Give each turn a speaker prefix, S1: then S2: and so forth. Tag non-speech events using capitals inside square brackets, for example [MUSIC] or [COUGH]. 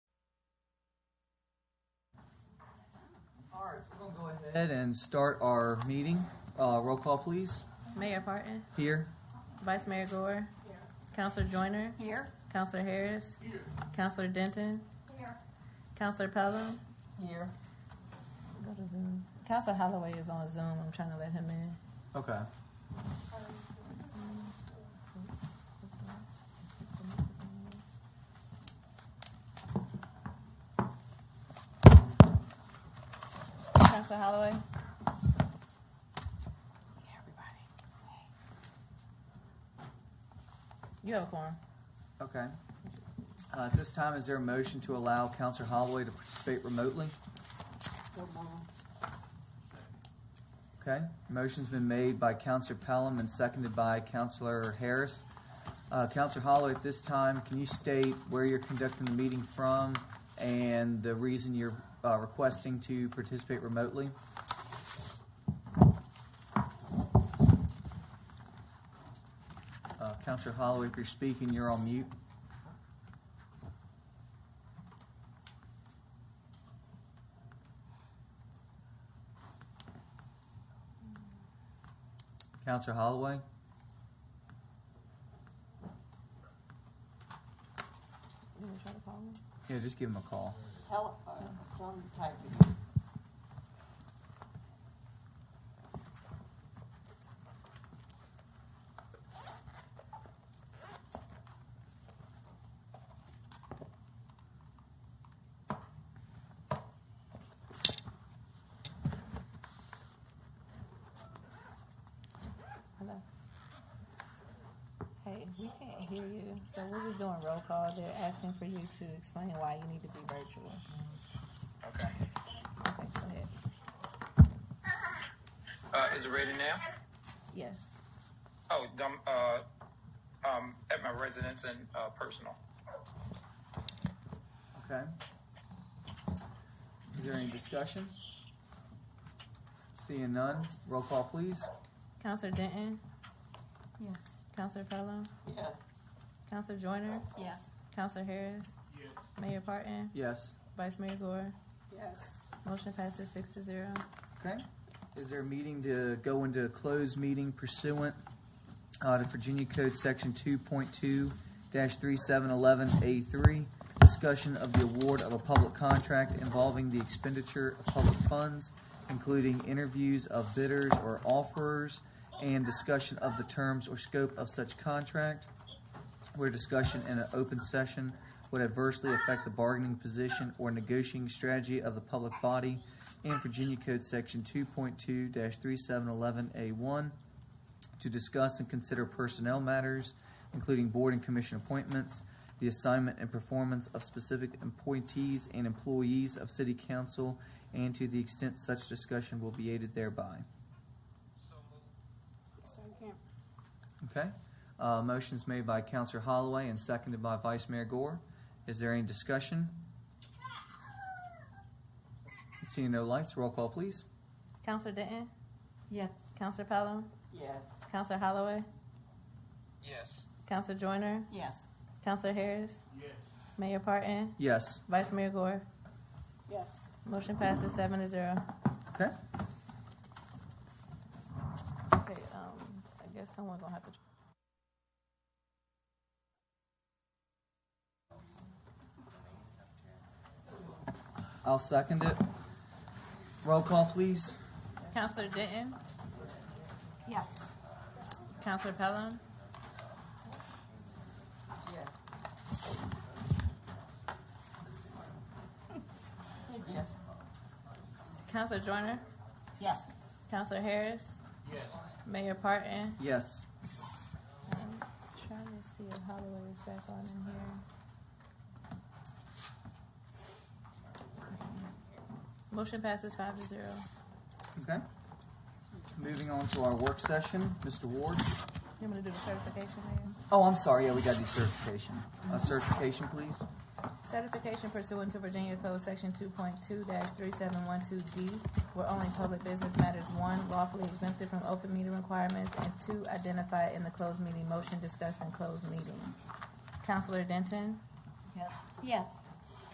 S1: ahead and start our meeting. Uh, Roll call, please.
S2: Mayor Parton,
S1: Here.
S2: Vice Mayor Gore, Counselor Joyner,
S3: Here.
S2: Counselor Harris, Counselor Denton,
S3: Here.
S2: Counselor Pelham. Here. Go to Zoom. Counselor Holloway is on Zoom. I'm trying to let him in.
S1: Okay.
S2: Counselor Holloway. Hey, everybody. Hey. You have a quorum.
S1: Okay. Uh, At this time, is there a motion to allow Counselor Holloway to participate remotely? Okay, motion's been made by Counselor Pelham and seconded by Counselor Harris. Uh, Counselor Holloway, at this time, can you state where you're conducting the meeting from and the reason you're uh, requesting to participate remotely? Uh, Counselor Holloway, if you're speaking, you're on mute. Counselor Holloway?
S2: You want to try to call him?
S1: Yeah, just give him a call.
S4: Tell, uh, tell him to type it.
S2: Hello. Hey, we can't hear you, so we're just doing roll call. They're asking for you to explain why you need to be virtual.
S5: Okay.
S2: Okay, go ahead.
S5: Uh, is it ready now?
S2: Yes.
S5: Oh, dumb, uh, um, at my residence and, uh, personal.
S1: Okay. Is there any discussion? Seeing none, roll call please.
S2: Counselor Denton,
S3: Yes.
S2: Counselor Pelham,
S4: Yes,
S2: Counselor Joyner,
S3: Yes.
S2: Counselor Harris, Mayor Parton,
S1: Yes.
S2: Vice Mayor Gore.
S4: yes.
S2: Motion passes six to zero.
S1: Okay. Is there a meeting to go into a closed meeting pursuant uh, to Virginia Code Section two point two three seven eleven A three? Discussion of the award of a public contract involving the expenditure of public funds, including interviews of bidders or offerers, and discussion of the terms or scope of such contract, where discussion in an open session would adversely affect the bargaining position or negotiating strategy of the public body and Virginia Code Section 2.2-3711A1 to discuss and consider personnel matters, including board and commission appointments, the assignment and performance of specific appointees and employees of city council, and to the extent such discussion will be aided thereby.
S4: Second.
S1: Okay? Uh, motion's made by Counselor Holloway and seconded by Vice Mayor Gore. Is there any discussion? Seeing no lights, roll call, please.
S2: Counselor Denton,
S3: Yes.
S2: Counselor Pelham,
S4: Yes,
S2: Counselor Holloway,
S5: Yes.
S2: Counselor Joyner,
S3: Yes.
S2: Counselor Harris, Mayor Parton,
S1: Yes.
S2: Vice Mayor Gore.
S4: yes.
S2: Motion passes seven to zero.
S1: Okay.
S2: Okay, um, I guess someone's gonna have to.
S1: I'll second it. Roll call, please.
S2: Counselor Denton,
S3: Yes.
S2: Counselor Pelham,
S4: Yes. [LAUGHS] Said Yes.
S2: Counselor Joyner,
S3: Yes.
S2: Counselor Harris. Yes. Mayor Parton.
S1: Yes.
S2: I'm trying to see if Holloway is back on in here. Motion passes five to zero.
S1: Okay. Moving on to our work session, Mr. Ward.
S2: You want me to do the certification there?
S1: Oh, I'm sorry. Yeah, we got to do certification. A certification, please.
S2: Certification pursuant to Virginia Code Section two point two three seven one two D, where only public business matters, one, lawfully exempted from open meeting requirements, and two, identified in the closed meeting motion discussed in closed meeting. Counselor Denton,
S3: Yes.